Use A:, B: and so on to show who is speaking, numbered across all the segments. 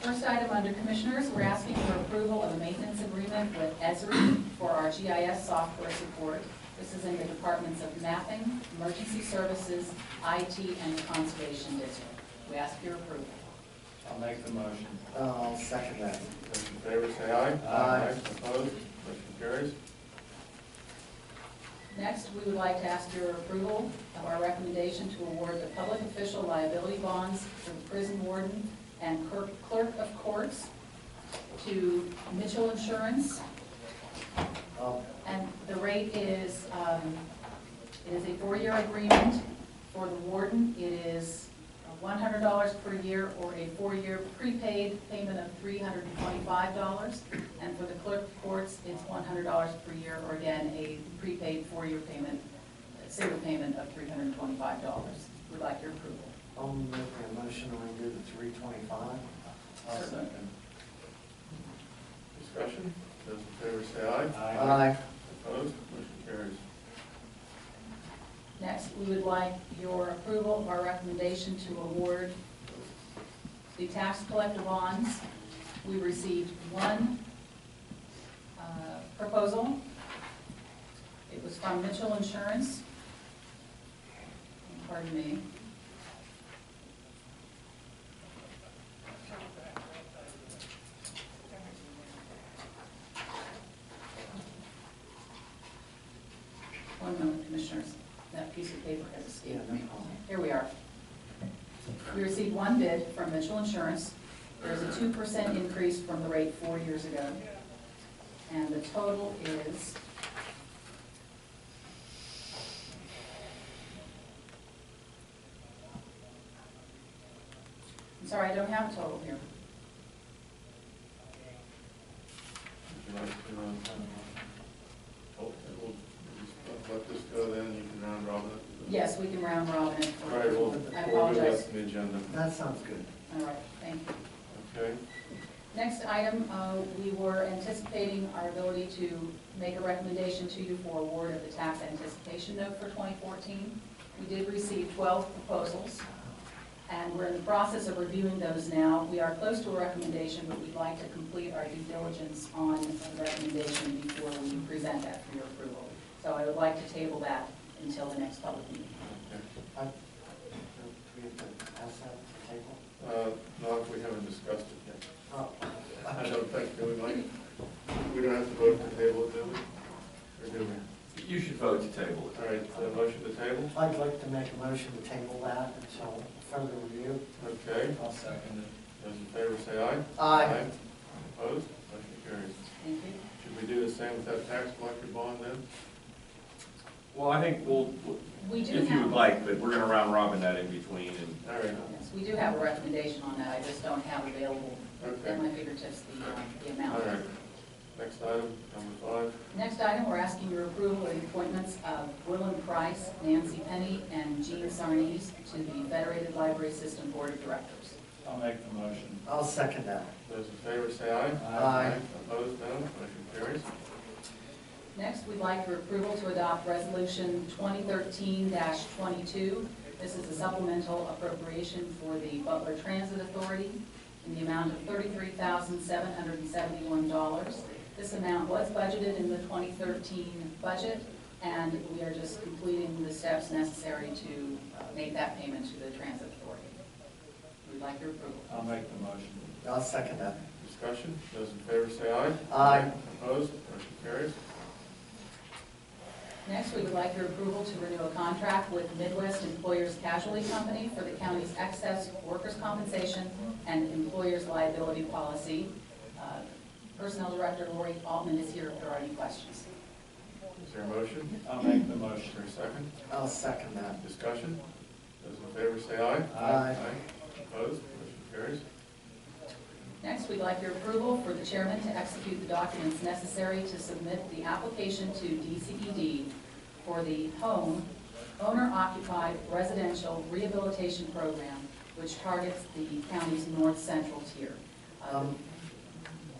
A: First item under Commissioners, we're asking for approval of a maintenance agreement with Esri for our GIS software support. This is in the Departments of Mapping, Emergency Services, IT, and the Conservation District. We ask for your approval.
B: I'll make the motion.
C: I'll second that.
D: Those in favor say aye.
C: Aye.
D: Opposed, motion carries.
A: Next, we would like to ask your approval of our recommendation to award the public official liability bonds for the prison warden and clerk clerk of courts to Mitchell Insurance
C: I'll,
A: And the rate is, um, it is a four-year agreement for the warden. It is one hundred dollars per year or a four-year prepaid payment of three hundred and twenty-five dollars. And for the clerk of courts, it's one hundred dollars per year or again, a prepaid four-year payment, a single payment of three hundred and twenty-five dollars. We'd like your approval.
C: I'll make a motion to renew the three twenty-five.
B: I'll
A: Certainly.
B: second.
D: Discussion? Those in favor say aye.
C: Aye.
D: Opposed, motion carries.
A: Next, we would like your approval of our recommendation to award the tax collector bonds. We received one uh, proposal. It was from Mitchell Insurance. Pardon me. One moment, Commissioners, that piece of paper has
C: Yeah,
A: escaped
C: no
A: me.
C: problem.
A: Here we are. We received one bid from Mitchell Insurance. There's a two percent increase from the rate four years ago. And the total is I'm sorry, I don't have a total here.
D: Would you like to, uh, oh, we'll just let this go then, you can round robin it?
A: Yes, we can round robin it.
D: All right, well,
A: I
D: before we
A: apologize.
D: left the agenda,
C: That sounds good.
A: All right, thank you.
D: okay?
A: Next item, uh, we were anticipating our ability to make a recommendation to you for award of the tax anticipation note for 2014. We did receive 12 proposals, and we're in the process of reviewing those now. We are close to a recommendation, but we'd like to complete our due diligence on the recommendation before we present that for your approval. So I would like to table that until the next public meeting.
D: Okay.
C: I, do we have to pass that to the table?
D: Uh, Not if we haven't discussed it yet.
C: Oh,
D: I don't think, do we, Mike? We don't have to vote to table it, do we? Or do we?
E: You should vote to table
D: All right, so motion to table,
C: I'd like to make a motion to table that until further review.
D: okay?
B: I'll second
D: Those in favor say aye.
C: Aye.
D: Opposed? Motion carries.
A: Thank you.
D: Should we do the same with that tax collector bond then?
E: Well, I think we'll,
A: We do have...
E: if you would like, but we're gonna round robin that in between and
D: All right,
A: Yes, we do have a recommendation on that, I just don't have available at my fingertips the, uh, the
D: all
A: amount.
D: right. Next item, number five.
A: Next item, we're asking your approval of the appointments of Willem Price, Nancy Penny, and Jean Sarnes to the Federated Library System Board of Directors.
B: it. I'll make the motion.
C: I'll second that.
D: Those in favor say aye.
C: Aye.
D: Opposed, no. Motion carries.
A: Next, we'd like your approval to adopt Resolution 2013-22. This is a supplemental appropriation for the Butler Transit Authority in the amount of $33,771. This amount was budgeted in the 2013 budget, and we are just completing the steps necessary to uh, make that payment to the Transit Authority. We'd like your approval.
B: I'll make the motion.
C: I'll second that.
D: Discussion, those in favor say aye.
C: Aye.
D: Opposed, motion carries.
A: Next, we would like your approval to renew a contract with Midwest Employers Casualty Company for the county's excess workers' compensation and employers' liability policy. Uh, Personnel Director Lori Altman is here if there are any questions.
D: Is there a motion?
B: I'll make the
D: Is
B: motion.
D: there a second?
C: I'll second that.
D: Discussion, those in favor say aye.
C: Aye.
D: Opposed, motion carries.
A: Next, we'd like your approval for the chairman to execute the documents necessary to submit the application to DCED for the home owner-occupied residential rehabilitation program, which targets the county's north central tier. Uh,
C: Um,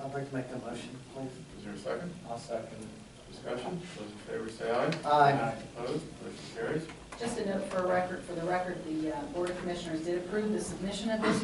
C: I'd like to make a motion, please.
D: Is there a second?
B: I'll second it.
D: Discussion, those in favor say aye.
C: Aye.
D: Opposed, motion carries.
A: Just a note for a record, for the record, the uh, Board of Commissioners did approve the submission of this